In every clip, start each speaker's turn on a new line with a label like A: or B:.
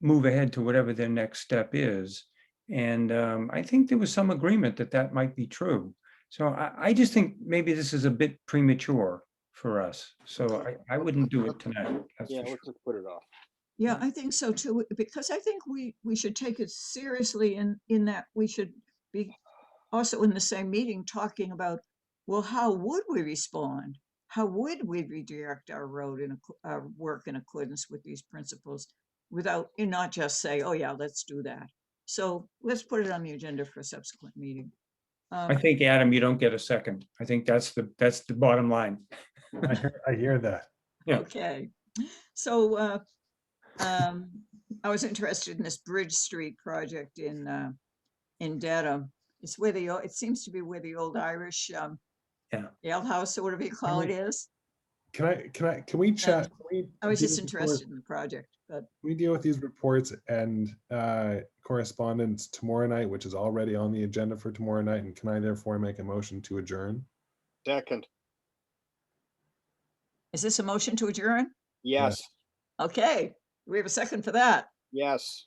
A: move ahead to whatever their next step is. And um, I think there was some agreement that that might be true. So I, I just think maybe this is a bit premature for us. So I, I wouldn't do it tonight. That's
B: Yeah,
A: for sure.
B: let's just put it off.
C: Yeah, I think so too, because I think we, we should take it seriously in, in that we should be also in the same meeting talking about, well, how would we respond? How would we redirect our road and our work in accordance with these principles without, and not just say, oh yeah, let's do that. So let's put it on the agenda for a subsequent meeting.
A: I
C: Um,
A: think, Adam, you don't get a second. I think that's the, that's the bottom line.
D: I hear, I hear that.
A: yeah.
C: Okay, so, uh, um, I was interested in this Bridge Street project in, uh, in Dedham. It's where the, o- it seems to be where the old Irish, um,
A: Yeah.
C: Ale House or whatever you call it
D: we-
C: is.
D: Can I, can I, can we chat? Can we
C: I was
D: deal
C: just
D: with the corres-
C: interested in the project, but
D: can We deal with these reports and uh correspondence tomorrow night, which is already on the agenda for tomorrow night. And can I therefore make a motion to adjourn?
B: Second,
C: is this a motion to adjourn?
B: yes,
C: Okay, we have a second for that.
B: yes,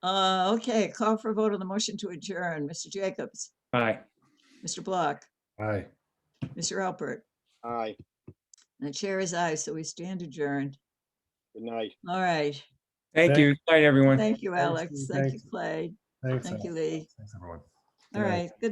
C: Uh, okay, call for a vote on the motion to adjourn. Mr. Jacobs,
A: Bye.
C: Mr. Block,
D: Aye.
C: Mr. Alpert,
B: aye,
C: and the chair is aye, so we stand adjourned.
B: good night.
C: All right,
A: Thank
D: Thank-
A: you. Good Night, everyone.
C: thank you,
D: Thanks,
C: Alex.
D: Lee.
C: Thank you,
D: Thanks.
C: Clay.
D: Thanks,
C: Thank
D: Al.
C: you, Lee.
D: Thanks, everyone. Good
C: All
D: night.
C: right, good